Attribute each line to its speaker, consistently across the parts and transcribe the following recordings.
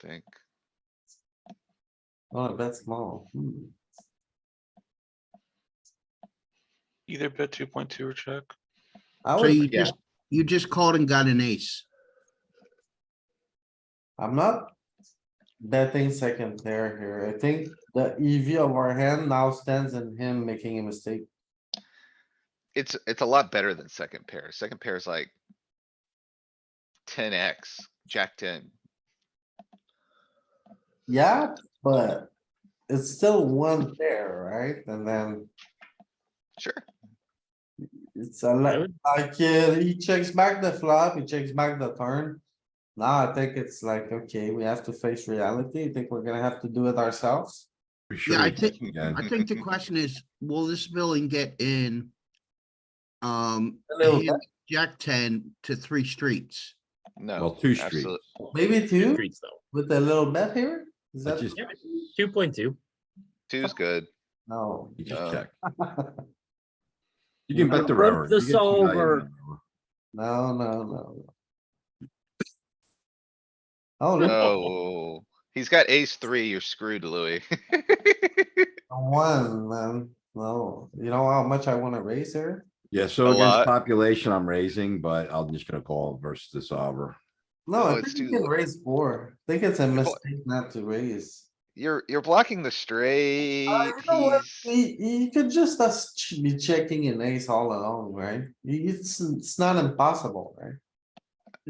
Speaker 1: think.
Speaker 2: Oh, that's small. Hmm.
Speaker 3: Either bet two point two or check.
Speaker 2: I
Speaker 4: So Oh, you
Speaker 2: would,
Speaker 1: yeah.
Speaker 4: just, you just called and got an ace.
Speaker 2: I'm not betting second pair here. I think the EV of our hand now stands in him making a mistake.
Speaker 1: It's, it's a lot better than second pair. Second pair is like. Ten X, jack ten.
Speaker 2: Yeah, but it's still one pair, right? And then
Speaker 1: Sure,
Speaker 2: it's a lot, like, uh, he checks back the flop, he checks back the turn. Now I think it's like, okay, we have to face reality. I think we're gonna have to do it ourselves.
Speaker 5: We
Speaker 4: Yeah, I
Speaker 5: should've
Speaker 4: think,
Speaker 5: again.
Speaker 4: I think the question is, will this villain get in? Um,
Speaker 2: A little
Speaker 4: hand jack ten to three streets.
Speaker 1: no.
Speaker 5: Well, two
Speaker 1: absolute-
Speaker 5: streets.
Speaker 2: Maybe two
Speaker 6: Streets though.
Speaker 2: with a little bet here? Is
Speaker 5: I
Speaker 2: that,
Speaker 5: just,
Speaker 6: Two point two.
Speaker 1: Two's good.
Speaker 2: no,
Speaker 5: you just
Speaker 1: Uh,
Speaker 5: check. You can bet the
Speaker 6: Flip
Speaker 5: river.
Speaker 6: the
Speaker 5: You get some value in
Speaker 6: solver.
Speaker 5: the river.
Speaker 2: no, no, no. Oh, look,
Speaker 1: No, Oh, he's got ace three. You're screwed, Louis.
Speaker 2: One, man, no, you know how much I wanna raise here?
Speaker 5: Yeah, so
Speaker 1: A
Speaker 5: against
Speaker 1: lot.
Speaker 5: population, I'm raising, but I'm just gonna call versus the solver.
Speaker 2: No,
Speaker 1: Oh,
Speaker 2: I
Speaker 1: it's
Speaker 2: think you
Speaker 1: too
Speaker 2: can
Speaker 1: low.
Speaker 2: raise four. I think it's a
Speaker 1: bought-
Speaker 2: mistake not to raise.
Speaker 1: You're, you're blocking the straight.
Speaker 2: Uh, you know what?
Speaker 1: He's-
Speaker 2: You, you could just us ch- be checking an ace all along, right? You- It's, it's not impossible, right?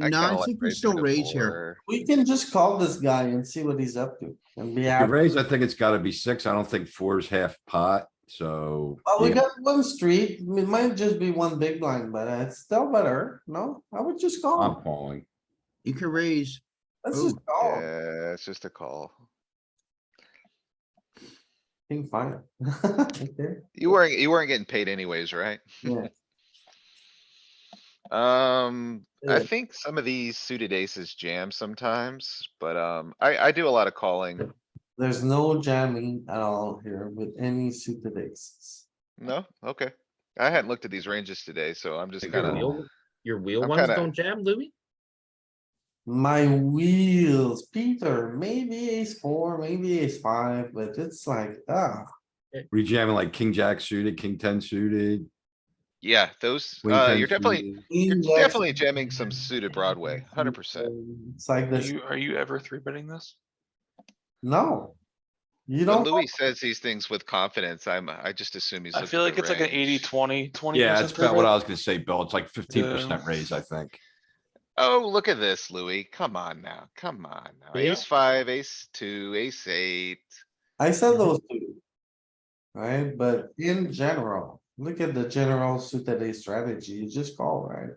Speaker 1: I
Speaker 4: No,
Speaker 1: kinda
Speaker 4: I
Speaker 1: like
Speaker 4: think we
Speaker 1: raising
Speaker 4: still
Speaker 1: to
Speaker 4: raise here.
Speaker 1: four.
Speaker 2: We can just call this guy and see what he's up to and be
Speaker 5: The
Speaker 2: happy.
Speaker 5: raise, I think it's gotta be six. I don't think four is half pot, so.
Speaker 2: Well, we
Speaker 5: yeah,
Speaker 2: got one street, it might just be one big blind, but it's still better, no? I would just
Speaker 5: I'm
Speaker 2: call,
Speaker 5: calling.
Speaker 4: You can raise,
Speaker 2: let's just
Speaker 4: ooh,
Speaker 2: call,
Speaker 1: Yeah, it's just a call.
Speaker 2: think fine. Okay,
Speaker 1: You weren't, you weren't getting paid anyways, right?
Speaker 2: yeah.
Speaker 1: Um, I
Speaker 2: Yeah.
Speaker 1: think some of these suited aces jam sometimes, but, um, I, I do a lot of calling.
Speaker 2: There's no jamming at all here with any suited aces.
Speaker 1: No? Okay. I hadn't looked at these ranges today, so I'm just
Speaker 5: Like
Speaker 6: Your
Speaker 5: kinda-
Speaker 1: gonna,
Speaker 6: wheel, your wheel
Speaker 1: I'm
Speaker 6: ones
Speaker 1: kinda-
Speaker 6: don't jam, Louis?
Speaker 2: My wheels, Peter, maybe ace four, maybe ace five, but it's like, ah,
Speaker 5: We jamming like king jack suited, king ten suited.
Speaker 1: yeah, those,
Speaker 5: queen
Speaker 1: uh,
Speaker 5: 10
Speaker 1: you're definitely,
Speaker 5: suited.
Speaker 1: you're
Speaker 2: Index.
Speaker 1: definitely jamming some suited Broadway, hundred percent.
Speaker 2: It's like
Speaker 3: Are
Speaker 2: this,
Speaker 3: you, are you ever three betting this?
Speaker 2: no.
Speaker 1: When
Speaker 2: You don't, know.
Speaker 1: Louis says these things with confidence, I'm, I just assume he's.
Speaker 3: I
Speaker 1: looking
Speaker 3: feel
Speaker 1: at
Speaker 3: like
Speaker 1: the
Speaker 3: it's like an
Speaker 1: range.
Speaker 3: eighty, twenty, twenty.
Speaker 5: Yeah, that's about what I was gonna say, Bill. It's like fifteen percent
Speaker 3: Yeah.
Speaker 5: raise, I think.
Speaker 1: Oh, look at this, Louis. Come on now, come on now.
Speaker 6: Yeah.
Speaker 1: Ace five, ace two, ace eight.
Speaker 2: I said those two. Right, but in general, look at the general suited ace strategy, you just call, right?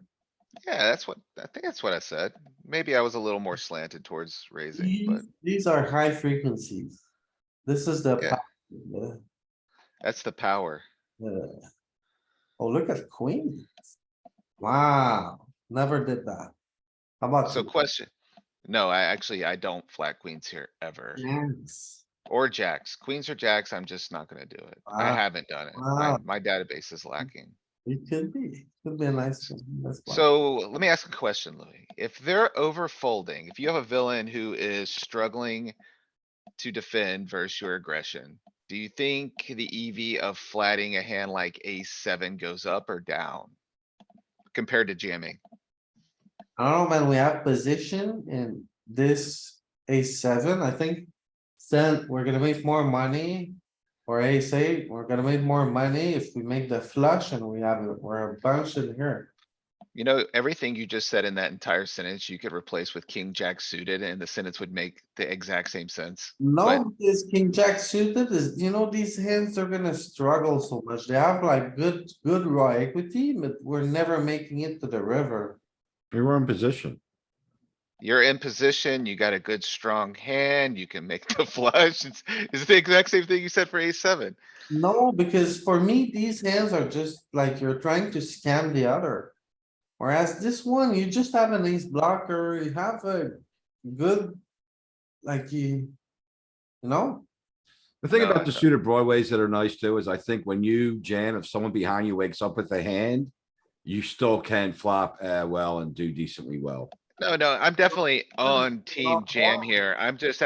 Speaker 1: Yeah, that's what, I think that's what I said. Maybe I was a little more slanted towards raising, but
Speaker 2: These- These are high frequencies. This is the.
Speaker 1: Yeah.
Speaker 2: pa- the-
Speaker 1: that's the power.
Speaker 2: the- Oh, look at queen. Wow, never did that. How about?
Speaker 1: So
Speaker 2: you?
Speaker 1: question, no, I actually, I don't flat queens here ever,
Speaker 2: Yes.
Speaker 1: or jacks, queens or jacks, I'm just not gonna do it. I
Speaker 2: Wow.
Speaker 1: haven't done it. My,
Speaker 2: Wow.
Speaker 1: my database is lacking.
Speaker 2: It could be, could be a nice. one, that's why.
Speaker 1: So let me ask a question, Louis. If they're over folding, if you have a villain who is struggling to defend versus your aggression, do you think the EV of flatting a hand like ace seven goes up or down? Compared to jamming?
Speaker 2: I don't know, man, we have position in this a seven, I think. Then we're gonna make more money. Or ace eight, we're gonna make more money if we make the flush and we have, a- we're a bunch in here.
Speaker 1: You know, everything you just said in that entire sentence, you could replace with king jack suited and the sentence would make the exact same sense. Right.
Speaker 2: No, this king jack suited is, you know, these hands are gonna struggle so much. They have like good, good raw equity, but we're never making it to the river.
Speaker 5: We were in position.
Speaker 1: You're in position, you got a good strong hand, you can make the flush. It's, it's the exact same thing you said for ace seven.
Speaker 2: No, because for me, these hands are just like you're trying to scam the other. Whereas this one, you just have an ace blocker, you have a good, like you, you know,
Speaker 5: The thing
Speaker 1: No,
Speaker 5: about the
Speaker 1: no.
Speaker 5: suited broadways that are nice too is I think when you jam, if someone behind you wakes up with a hand, you still can flop uh well and do decently well.
Speaker 1: No, no, I'm definitely on team
Speaker 2: not
Speaker 1: jam
Speaker 2: wrong.
Speaker 1: here. I'm just